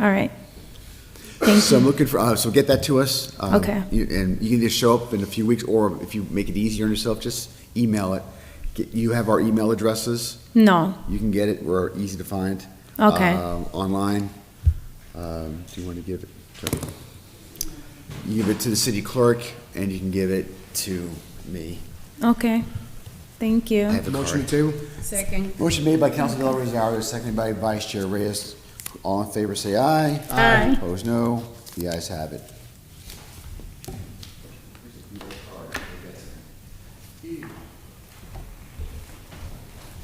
all right. Thank So I'm you. looking for, uh, so get that to us. um, Okay. you- And you can just show up in a few weeks, or if you make it easier on yourself, just email it. Get- You have our email addresses. No, You can get it. We're easy to find. okay. um, Online. Um, Do you want to give it? You give it to the city clerk, and you can give it to me. Okay, thank Uh, I you. have a Motion to card. table? Second. Motion made by Council Del Rosario, seconded by Vice Chair Reyes. All in favor, say aye. Aye. Opposed, no. The ayes have it.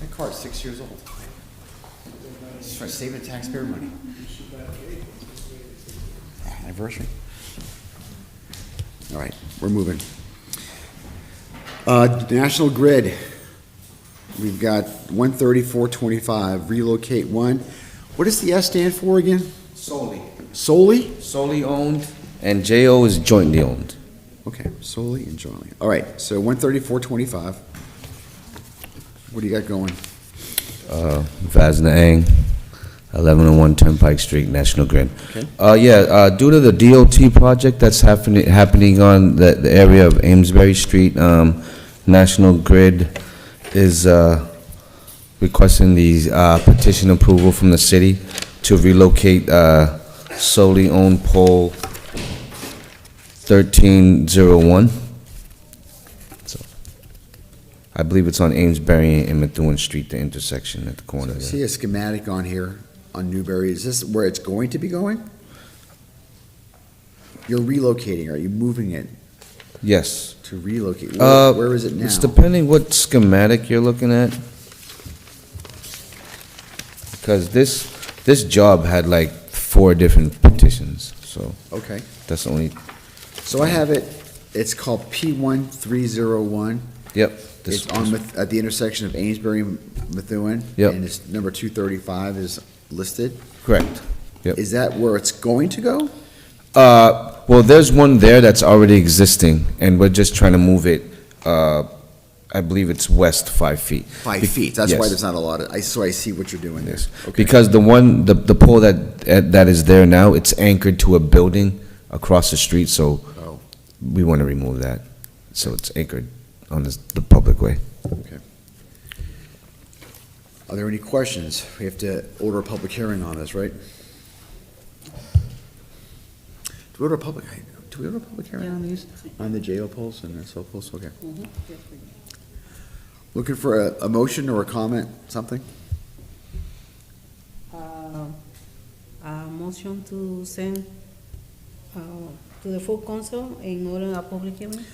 That card's six years old. Just trying to save the taxpayer money. Anniversary. All right, we're moving. Uh, National Grid, we've got one thirty-four twenty-five, relocate one. What does the S stand for again? Solely. Solely? Solely owned. And JO is jointly owned. Okay, solely and jointly. All right, so one thirty-four twenty-five. What do you got going? Uh, Vazna Ang, 1101 Turnpike Street, National Grid. Okay. Uh, yeah, uh, due to the DOT project that's happening, happening on the, the area of Amesbury Street, um, National Grid is, uh, requesting the, uh, petition approval from the city to relocate, uh, solely owned pole 1301. So, I believe it's on Amesbury and Methuen Street, the intersection at the corner I there. See a schematic on here on Newberry. Is this where it's going to be going? You're relocating, are you moving it Yes. to relocate? Uh, Where where is it now? It's depending what schematic you're looking at. Because this, this job had like four different petitions, so Okay, that's the only, so I have it, it's called P one three zero one. yep. this- It's on, Meth- at the intersection of Amesbury and Methuen. Yep. And it's number two thirty-five is listed. Correct. Yep. Is that where it's going to go? Uh, well, there's one there that's already existing, and we're just trying to move it, uh, I believe it's west five feet. Five Be- feet, that's why yes. there's not a lot of, I, so I see what you're doing there. Yes. Okay. Because the one, the, the pole that, eh, that is there now, it's anchored to a building across the street, so Oh. we want to remove that. So it's anchored on this- the public way. Are there any questions? We have to order a public hearing on this, right? Do we order a public, do we order a public hearing on these? On the JO polls and SO polls, okay. Mm-hmm. Looking for a, a motion or a comment, something? Uh, A motion to send uh, to the full council in order a public hearing?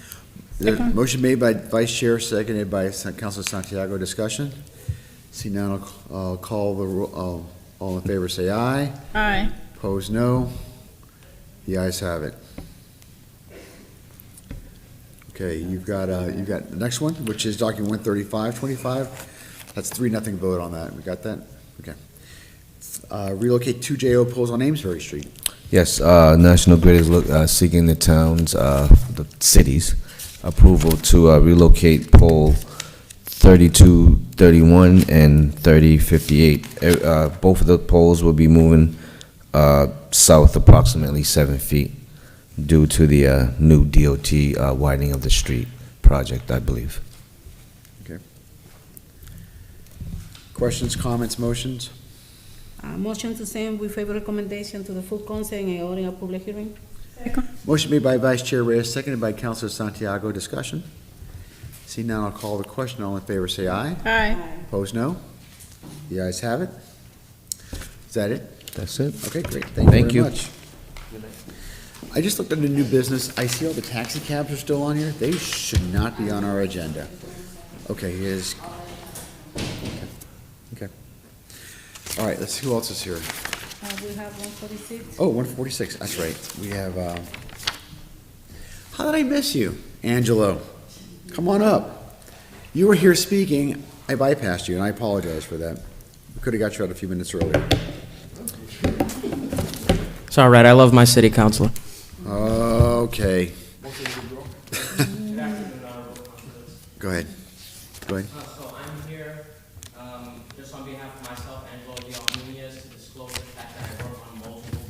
The Motion made by Vice Chair, seconded by Sa- Councilor Santiago. Discussion? See none, I'll uh, call the, ro- all all in favor, say aye. Aye. Opposed, no. The ayes have it. Okay, you've got, uh, you've got the next one, which is document one thirty-five twenty-five. That's three, nothing vote on that. We got that? Okay. Uh, relocate two JO poles on Amesbury Street. Yes, uh, National Grid is look- uh, seeking the town's, uh, the city's approval to uh, relocate pole 32, 31, and 3058. Eh, uh, Both of the poles will be moving uh, south approximately seven feet due to the uh, new DOT uh, widening of the street project, I believe. Questions, comments, motions? A motion to send with favor recommendation to the full council in order a public hearing? Motion made by Vice Chair Reyes, seconded by Councilor Santiago. Discussion? Seeing none, I'll call the question. All in favor, say aye. Aye. Opposed, no. The ayes have it. Is that it? That's it. Okay, great, thank Thank you you. very much. I just looked under new business, I see all the taxi cabs are still on here, they should not be on our agenda. Okay, here's. Okay. All right, let's, see who else is here? Uh, We have 146. Oh, 146, that's right, we have, um, how did I miss you, Angelo? Come on up. You were here speaking, I bypassed you, and I apologize for that. We Could've got you out a few minutes earlier. It's all right. I love my city councilor. Okay. Go ahead. Go ahead.